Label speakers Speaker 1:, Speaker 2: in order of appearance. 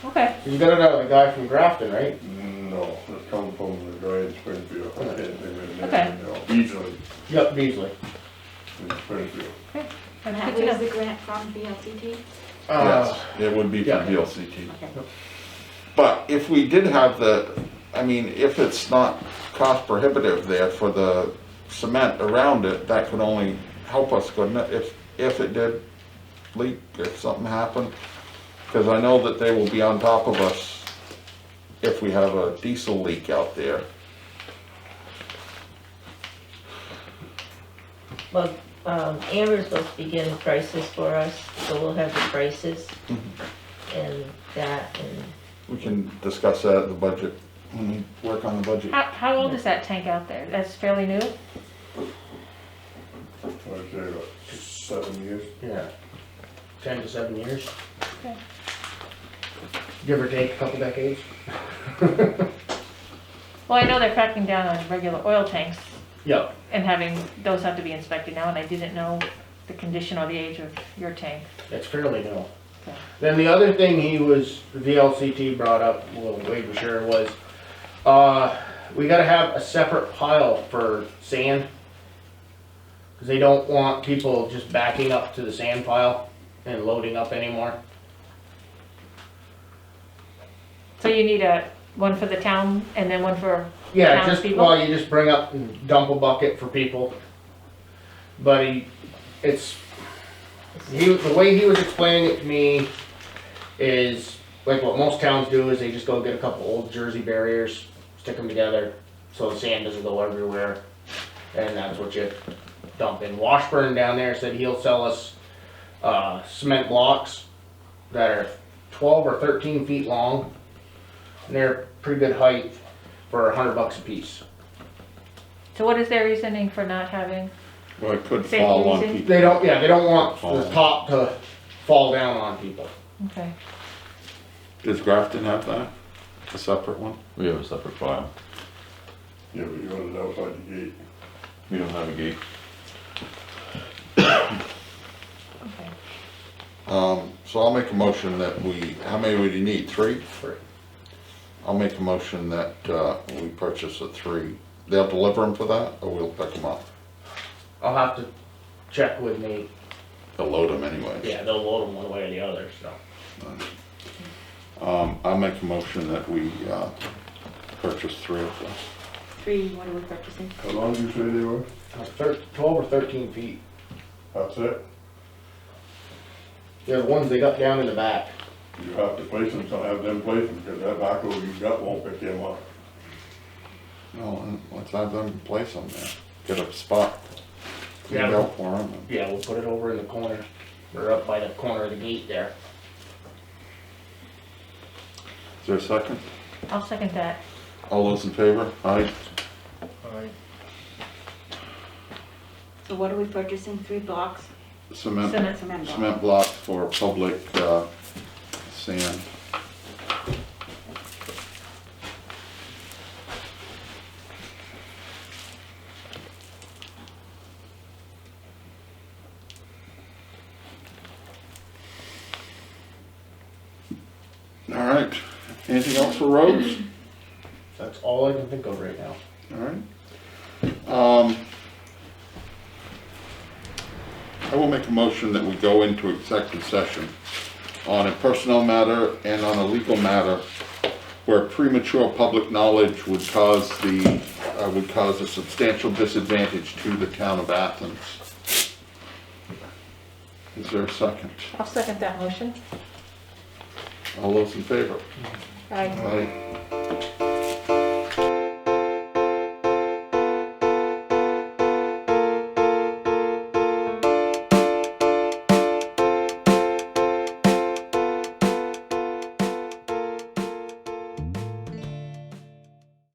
Speaker 1: Okay,
Speaker 2: You gotta know the guy from Grafton, right?
Speaker 3: No, it's come from the guy in Springfield. I can't think of his name
Speaker 1: Okay.
Speaker 3: right now. Easily
Speaker 2: Yep, Beasley.
Speaker 3: in Springfield.
Speaker 1: I'm
Speaker 4: Matt,
Speaker 1: happy to
Speaker 4: where's
Speaker 1: know.
Speaker 4: the grant from BLCT?
Speaker 2: Uh,
Speaker 3: Yes, it would be
Speaker 2: yeah.
Speaker 3: from VLCT.
Speaker 4: Okay.
Speaker 3: But if we did have the, I mean, if it's not cost prohibitive there for the cement around it, that could only help us, couldn't it? If, if it did leak, if something happened, because I know that they will be on top of us if we have a diesel leak out there.
Speaker 5: Well, um, Amber's supposed to be getting prices for us, so we'll have the prices and that, and
Speaker 3: We can discuss that at the budget, when we work on the budget.
Speaker 1: How, how old is that tank out there? That's fairly new?
Speaker 3: I'd say about seven years.
Speaker 2: yeah. Ten to seven years.
Speaker 1: Okay.
Speaker 2: Give or take a couple decades.
Speaker 1: Well, I know they're cracking down on regular oil tanks
Speaker 2: Yep.
Speaker 1: and having, those have to be inspected now, and I didn't know the condition or the age of your tank.
Speaker 2: It's fairly new.
Speaker 1: Okay.
Speaker 2: Then the other thing he was, VLCT brought up, well, Wade was sure, was, uh, we gotta have a separate pile for sand. Cause they don't want people just backing up to the sand pile and loading up anymore.
Speaker 1: So you need a, one for the town and then one for,
Speaker 2: Yeah, just,
Speaker 1: Townspeople?
Speaker 2: well, you just bring up and dump a bucket for people. But he, it's, he, the way he was explaining it to me is, like what most towns do is they just go get a couple old Jersey barriers, stick them together, so the sand doesn't go everywhere. And that's what you dump in. Washburn down there said he'll sell us, uh, cement blocks that are twelve or thirteen feet long. And they're pretty good height for a hundred bucks a piece.
Speaker 1: so what is their reasoning for not having?
Speaker 3: Well, it could
Speaker 1: Safety
Speaker 3: fall on
Speaker 1: reason?
Speaker 3: people.
Speaker 2: They don't, yeah, they don't want the top to fall down on people.
Speaker 1: Okay,
Speaker 3: Does Grafton have that? A separate one?
Speaker 6: We have a separate file.
Speaker 3: Yeah, but you want it outside the gate.
Speaker 6: We don't have a gate.
Speaker 1: okay.
Speaker 3: Um, so I'll make a motion that we, how many would you need, three?
Speaker 2: Three.
Speaker 3: I'll make a motion that, uh, we purchase a three. They'll deliver them for that, or we'll pick them up?
Speaker 2: I'll have to check with Nate.
Speaker 3: They'll load them anyways.
Speaker 2: Yeah, they'll load them one way or the other, so.
Speaker 3: Um, I'll make a motion that we, uh, purchase three of them.
Speaker 4: Three, what are we purchasing?
Speaker 3: How long do you say they were?
Speaker 2: Uh, thir- Twelve or thirteen feet.
Speaker 3: That's it?
Speaker 2: They're the ones they got down in the back.
Speaker 3: You have to place them, so have them place them, because that backhoe you got won't pick them up. No, and let's have them place them there. Get a spot.
Speaker 2: Yeah.
Speaker 3: Cleaned out for 'em.
Speaker 2: Yeah, we'll put it over in the corner, or up by the corner of the gate there.
Speaker 3: Is there a second?
Speaker 1: I'll second that.
Speaker 3: All those in favor? Aye.
Speaker 4: So what are we purchasing? Three blocks?
Speaker 3: Cement,
Speaker 1: Cement.
Speaker 4: Cement block.
Speaker 3: cement block for public, uh, sand. All right, anything else for roads?
Speaker 2: That's all I can think of right now.
Speaker 3: All right. Um, I will make a motion that we go into executive session on a personnel matter and on a legal matter where premature public knowledge would cause the, uh, would cause a substantial disadvantage to the town of Athens. Is there a second?
Speaker 1: I'll second that motion.
Speaker 3: All those in favor?
Speaker 1: Aye.
Speaker 3: Aye.